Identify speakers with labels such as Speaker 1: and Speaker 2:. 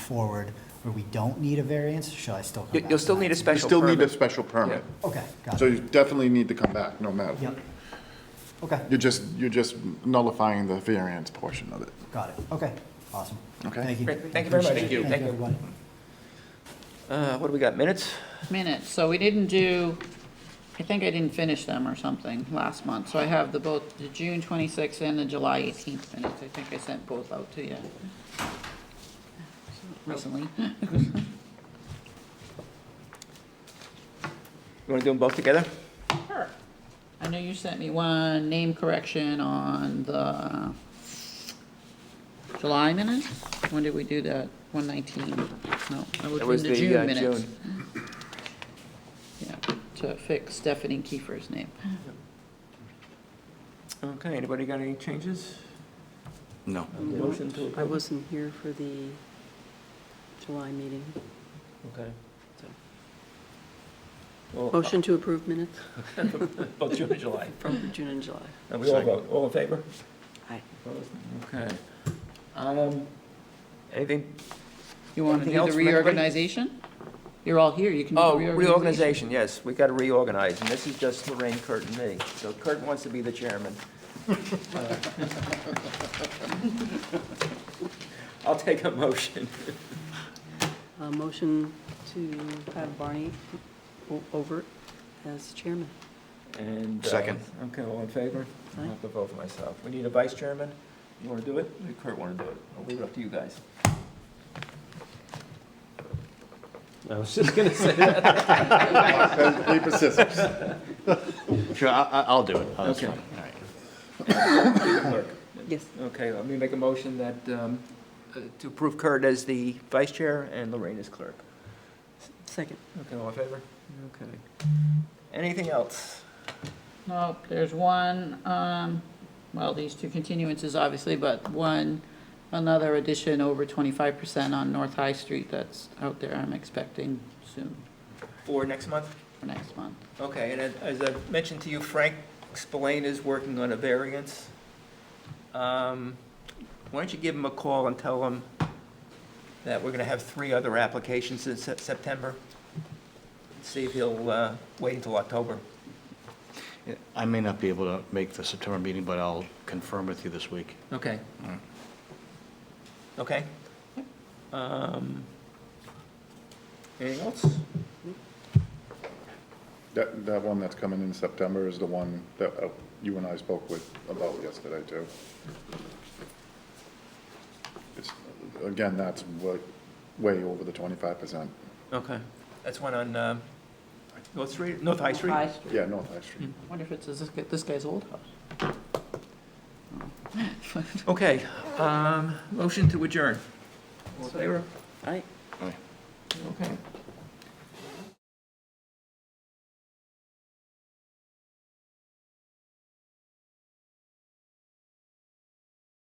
Speaker 1: forward where we don't need a variance, shall I still come
Speaker 2: You-
Speaker 1: back?
Speaker 2: You'll still
Speaker 1: to
Speaker 2: need
Speaker 1: that?
Speaker 2: a
Speaker 3: You
Speaker 2: special
Speaker 3: still need a
Speaker 2: permit.
Speaker 3: special permit.
Speaker 1: Okay, got
Speaker 3: So
Speaker 1: it.
Speaker 3: you definitely need to come back, no matter.
Speaker 1: Yep. Okay,
Speaker 3: You're just, you're just nullifying the variance portion of it.
Speaker 1: got it. Okay, awesome.
Speaker 3: Okay.
Speaker 1: Thank you.
Speaker 2: Great, thank you very much.
Speaker 1: Appreciate it.
Speaker 2: Thank
Speaker 1: Thank
Speaker 2: you. Thank
Speaker 1: you,
Speaker 2: you.
Speaker 1: everybody.
Speaker 2: Uh, What do we got, minutes?
Speaker 4: minutes, so we didn't do, I think I didn't finish them or something last month. So I have the both, the June 26th and the July 18th minutes. I think I sent both out to you recently.
Speaker 2: You want to do them both together?
Speaker 4: Sure. I know you sent me one name correction on the July minutes. When did we do that? 119? No, I
Speaker 2: That
Speaker 4: was
Speaker 2: was
Speaker 4: in the
Speaker 2: the
Speaker 4: June
Speaker 2: uh,
Speaker 4: minutes.
Speaker 2: June.
Speaker 4: Yeah, to fix Stephanie Kiefer's name.
Speaker 2: Okay, anybody got any changes?
Speaker 5: No.
Speaker 2: Motion to
Speaker 6: I
Speaker 2: approve?
Speaker 6: wasn't here for the July meeting.
Speaker 2: Okay.
Speaker 6: So-
Speaker 2: Well, uh,
Speaker 6: Motion to approve minutes
Speaker 2: Both June and July.
Speaker 6: from June and July.
Speaker 2: And we all vote, all in favor?
Speaker 6: Aye.
Speaker 2: Opposed? Okay. Um, Anything?
Speaker 4: You want to
Speaker 2: Anything
Speaker 4: do
Speaker 2: else
Speaker 4: the
Speaker 2: from anybody?
Speaker 4: reorganization? You're all here, you can do
Speaker 2: Oh,
Speaker 4: the reorganization.
Speaker 2: reorganization, yes, we got to reorganize, and this is just Lorraine, Kurt, and me. So Kurt wants to be the chairman. I'll take a motion.
Speaker 6: A motion to have Barney O- Overt as chairman.
Speaker 2: And. uh,
Speaker 5: Second.
Speaker 2: Okay, all in favor? I have to vote for myself. We need a vice chairman. You want to do it? Or Kurt want to do it? I'll leave it up to you guys.
Speaker 7: I was just gonna say.
Speaker 3: Rock, pen, Paper, scissors.
Speaker 5: Sure, I, I- I'll do it. Oh, that's
Speaker 2: Okay.
Speaker 5: fine. All right.
Speaker 6: Yes.
Speaker 2: Okay, let me make a motion that, um, uh, to approve Kurt as the vice chair and Lorraine as clerk.
Speaker 6: Second.
Speaker 2: Okay, all in favor? Okay. Anything else?
Speaker 4: Nope, there's one, um, well, these two continuances, obviously, but one, another addition over twenty-five percent on North High Street that's out there, I'm expecting soon,
Speaker 2: For next month?
Speaker 4: for next month.
Speaker 2: Okay, and as I mentioned to you, Frank Spillane is working on a variance. Um, Why don't you give him a call and tell him that we're going to have three other applications in Sep- September? See if he'll uh, wait until October.
Speaker 5: Yeah, I may not be able to make the September meeting, but I'll confirm with you this week.
Speaker 2: Okay. Okay? Um, Anything else?
Speaker 3: That, that one that's coming in September is the one that uh, you and I spoke with about yesterday, too. It's, again, that's wa- way over the twenty-five percent.
Speaker 2: Okay. That's one on um, North Street, North High Street?
Speaker 3: Yeah, North High Street.
Speaker 4: Wonder if it's this, guy- this guy's old house?
Speaker 2: Okay, um, motion to adjourn. All in favor?
Speaker 6: Aye.
Speaker 5: All right.
Speaker 2: Okay.